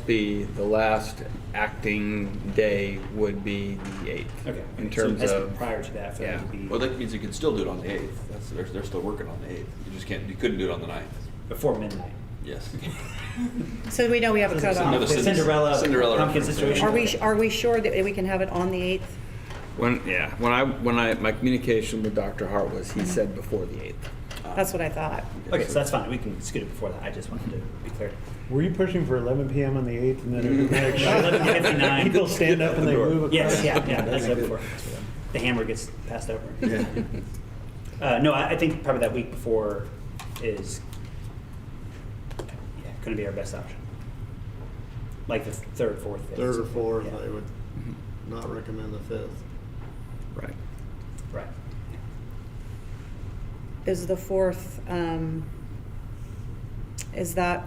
ASB, the last acting day would be the 8th. Okay. In So terms that's of, Prior to that, for yeah. them to be, Well, that means you can still do it on the 8th. That's, they're, they're still working on the 8th. You just can't, you couldn't do it on the 9th. before midnight. Yes. So we know we have a Another cutoff. Cin- Cinderella pumpkin reference. situation. Are we, are we sure that we can have it on the 8th? when, yeah, when I, when I, my communication with Dr. Hart was, he said before the 8th. That's what I thought. Okay, so that's fine, we can scoot it before that, I just wanted to be clear. Were you pushing for 11 PM on the 8th and then it was like, 11:59. people stand up and they move across? Yes, yeah, yeah, that's that before. The hammer gets passed over. Uh, no, I, I think probably that week before is, yeah, gonna be our best option. Like the third, fourth, fifth. Third or fourth, Yeah, I would not recommend the fifth. Right. Right. Is the 4th, um, is that,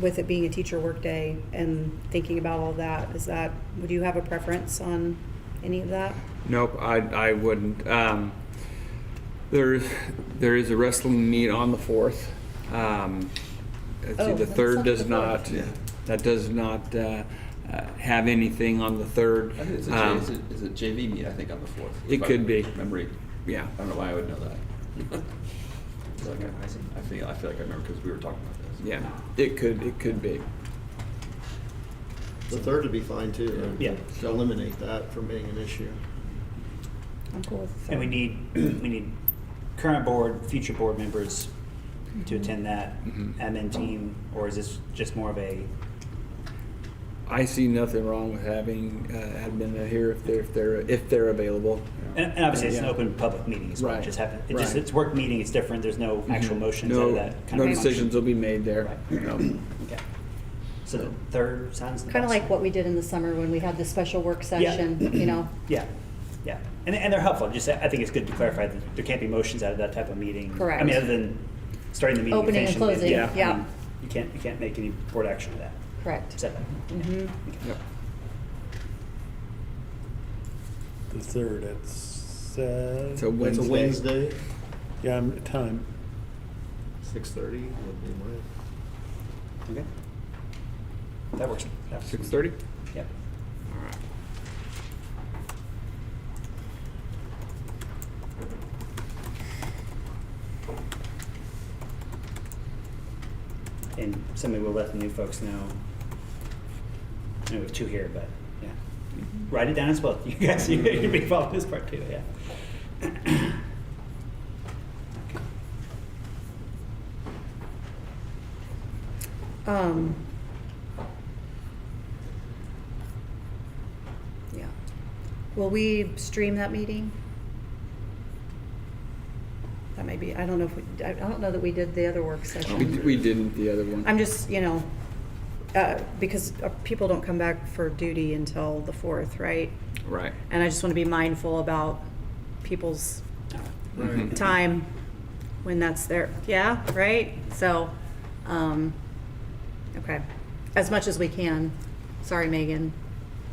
with it being a teacher workday and thinking about all that, is that, would you have a preference on any of that? Nope, I, I wouldn't. Um, there, there is a wrestling meet on the fourth. Um, let's see, Oh, the that's third not does the not, fourth. Yeah. that does not, uh, uh, have anything on the third. I think it's a, Um, J, is, it, is it JV meet? I think on the fourth. It if I could be. Memory. Yeah. I don't know why I would know that. It's like I, I feel I feel like I remember because we were talking about this. Yeah, it could, it could be. The third would be fine too. I Yeah. would Eliminate that from being an issue. I'm cool with the And we 3rd. need, we need current board, future board members to attend that Mhm. admin team, or is this just more of a, I see nothing wrong with having, uh, admin here if they're, if they're, if they're available. and, and obviously it's an Yeah. open public meeting, it's Right, just happen, it just, right. Mm-hmm. it's work meeting, it's different, there's no actual motions out No, of that kind no of function. decisions will be made there. Right. No. Okay. So the third sounds the Kind of best. like what we did in the summer when we had the special work Yeah. session, you know? Yeah, yeah. And, and they're helpful. Just, I think it's good to clarify that there can't be motions out of that type of meeting. Correct. I mean, other than starting the meeting. Opening and finishing the meeting. closing, Yeah. I mean, You can't, you can't make any board action of that. Is Correct. that- Mm-hmm. Yep. The 3rd, It's it's, uh. a It's a Wednesday. Wednesday, Yeah, I'm- time. six thirty would be my. Okay. That works. That works. Six thirty? Yep. All right. And somebody will let the new folks know. I know we have two here, but, yeah. Write it down as well. You guys, you- you'll be following this part too, yeah. Um. Yeah. Will we stream that meeting? That may be, I don't know if we, I I don't know that we did the other work We, session. d- we didn't the other one. I'm just, you know, uh, because uh, people don't come back for duty until the fourth, right? Right. And I just want to be mindful about people's Mhm. time when that's there. Yeah, right? So, um, okay, as much as we can. Sorry, Megan.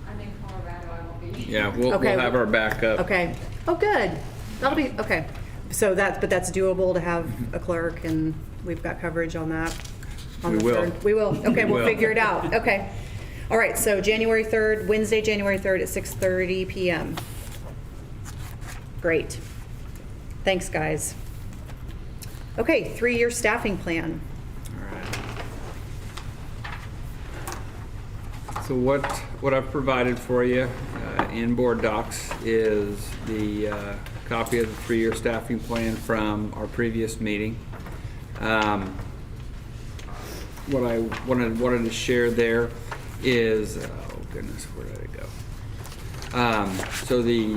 I'm in Colorado, I won't be. Yeah, we'll, Okay. we'll have our backup. Okay. Oh, good. That'll be, okay. So that's, but that's doable to have a clerk and we've got coverage on that. on We the will. third. We will. Okay, We we'll will. figure it out. Okay. All right, so January 3rd, Wednesday, January 3rd at 6:30 PM. Great. Thanks, guys. Okay, three-year staffing plan. All right. So what, what I've provided for you uh, in board docs is the uh, copy of the three-year staffing plan from our previous meeting. Um, What I wanted, wanted to share there is, oh goodness, where did it go? Um, So the,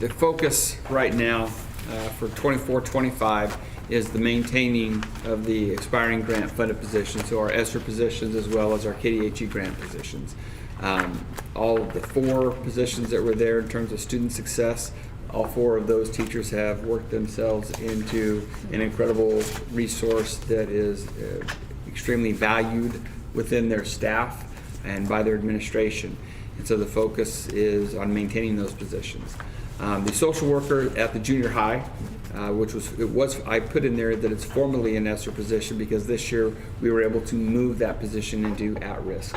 the focus right now uh, for 24-25 is the maintaining of the expiring grant funded positions, so our ESSER positions as well as our KDHE E grant positions. Um, All of the four positions that were there in terms of student success, all four of those teachers have worked themselves into an incredible resource that is uh, extremely valued within their staff and by their administration. And so the focus is on maintaining those positions. Um, The social worker at the junior high uh, uh, which was, it was, I put in there that it's formerly an ESER position because this year we were able to move that position into at-risk.